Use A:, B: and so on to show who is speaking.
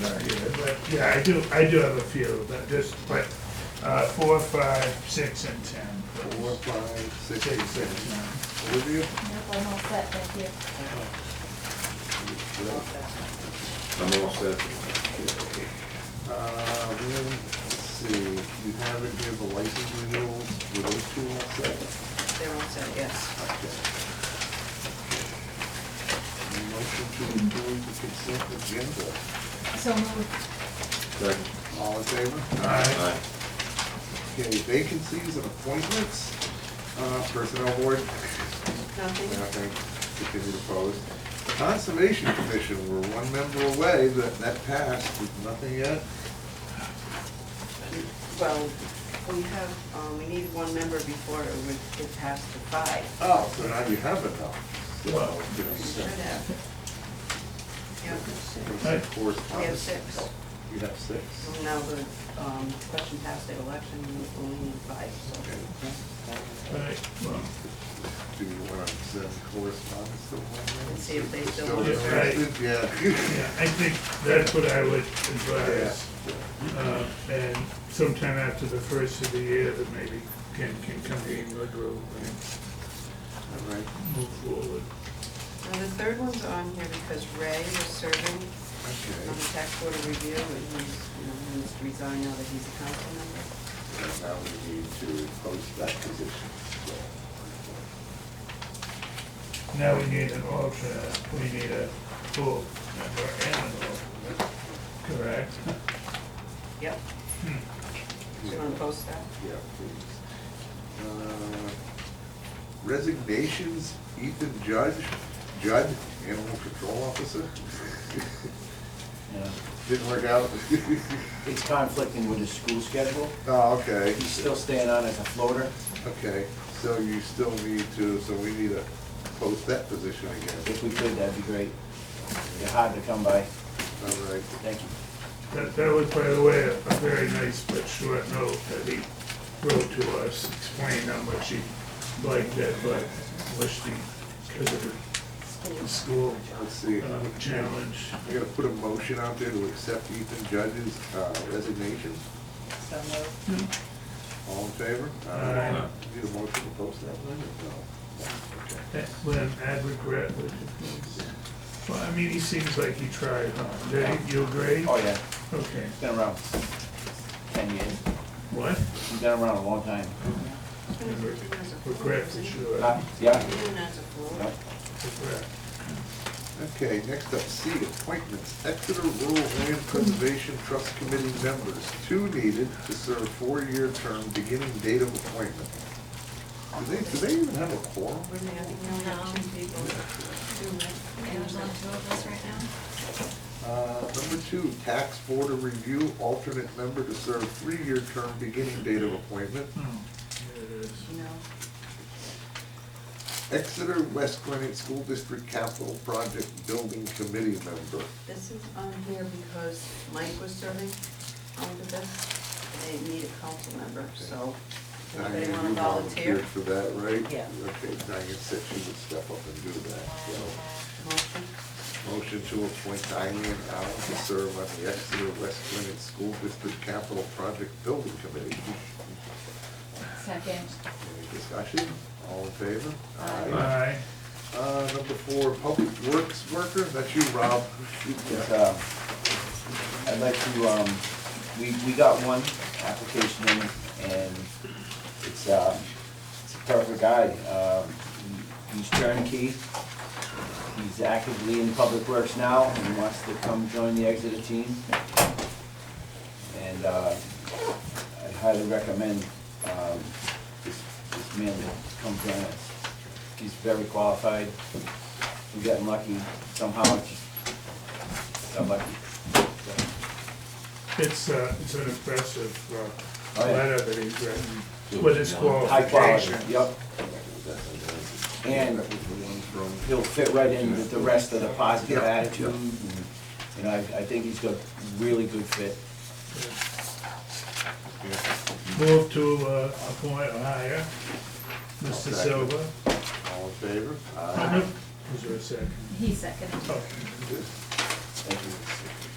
A: not here, but yeah, I do, I do have a few, but just, but, uh, four, five, six, and ten.
B: Four, five, six,
A: Six,
B: eight,
A: six,
B: seven.
A: nine.
B: Olivia?
C: Yep, I'm all set, thank you.
D: I'm all set.
B: Uh, then, let's see, you have it here, the license renewals, were those two all set?
E: They're all set, yes.
B: Okay. Motion to approve the consent agenda.
C: So moved.
D: Second.
B: All in favor?
A: Aye.
D: Aye.
B: Okay, vacancies and appointments, uh, personnel board,
E: Nothing?
B: nothing, continue to pose. Conservation Commission, we're one member away, but that passed, with nothing yet.
E: Well, we have, um, we need one member before it would, it passed to five.
B: Oh, so now you have it now. So,
A: Wow.
B: you know,
E: We
B: so-
E: should have. Yeah.
B: Of course,
E: We have
B: Thomas.
E: six.
B: You have six?
E: Well, Now the, um, question passed at election, we only need five, so.
B: Okay.
A: Right, well,
B: Do you want to send correspondence to one?
E: And see if they still
B: Still
E: want
A: it.
B: interested? Yeah.
A: yeah, I think that's what I would advise. Uh, and sometime after the first of the year, that maybe can, can come in your group and
B: All right.
A: move forward.
E: Now, the third one's on here because Ray is serving on the
B: Okay.
E: tax board of review, and he's, you know, he needs to resign now that he's a council member.
B: And Now we need to post that position. So,
A: Now we need an alternate, we need a full member and an alternate, correct?
E: Yep,
A: Hmm.
E: do you wanna post that?
B: Yeah, please. Uh, Resignations, Ethan Judge, Judd, Animal Control Officer.
F: Yeah.
B: Didn't work out.
F: It's conflicting with his school schedule.
B: Oh, okay.
F: He's still staying on as a floater.
B: Okay, so you still need to, so we need to post that position again.
F: If we could, that'd be great. They're hard to come by.
B: All right.
F: Thank you.
A: That, that was, by the way, a very nice but short note that he wrote to us, explaining how much he liked it, but wished he could have the school
B: Let's see,
A: uh,
B: I'm
A: challenge.
B: gonna put a motion out there to accept Ethan Judge's uh, resignation. Mm-hmm.
E: So moved.
B: All in favor?
A: Aye.
B: Need a motion to post that one or
A: Eh, When I'd regret, would well, I mean, he seems like he tried, huh? Did you agree?
F: Oh, yeah,
A: Okay,
F: he's been around ten years.
A: what?
F: He's been around a long time.
A: Regret for sure,
F: Uh,
A: regret.
F: Yeah?
E: Even as a floor.
F: Yep.
B: no? Okay, next up, C, appointments, Exeter Rural Land Preservation Trust Committee members, two needed to serve four-year term, beginning date of appointment. Do they, do they even have a quorum?
E: We're gonna have to count out two people.
C: And there's only two of us right now?
B: Uh, Number two, tax board of review, alternate member to serve three-year term, beginning date of appointment.
A: Oh, there it is.
E: No,
B: Exeter West Gwinnett School District Capital Project Building Committee member.
E: this is on here because Mike was serving on the best, and they need a council member, so. Anybody
B: Diane,
E: wanna
B: you
E: volunteer?
B: volunteered For that, right?
E: Yeah.
B: Okay, Diane said she would step up and do that, so.
E: Motion?
B: Motion to appoint Diane Allen to serve on the Exeter West Gwinnett School District Capital Project Building Committee.
C: Second.
B: Any discussion? All in favor?
A: Aye.
B: Uh, number four, public works worker, that's you, Rob.
F: Yes, um, I'd like to, um, we, we got one application in, and it's, um, it's a perfect guy. Um, he- He's turnkey, he's actively in public works now, and he wants to come join the Exeter team. And, uh, I highly recommend, um, this, this man to come join us. He's very qualified, we got lucky somehow, just got lucky.
A: It's, uh, it's an impressive, uh,
F: Oh, yeah.
A: letter that he's written with his
F: High quality,
A: qualifications.
F: yep. And
B: That was the one from-
F: he'll fit right in with the rest of the positive attitude. and, You know, I, I think he's got really good fit.
A: Move to, uh, appoint or hire Mr.
B: Second.
A: Silva.
B: All in favor?
F: Uh,
A: Is there a second?
C: He seconded.
A: Oh,
B: Thank you.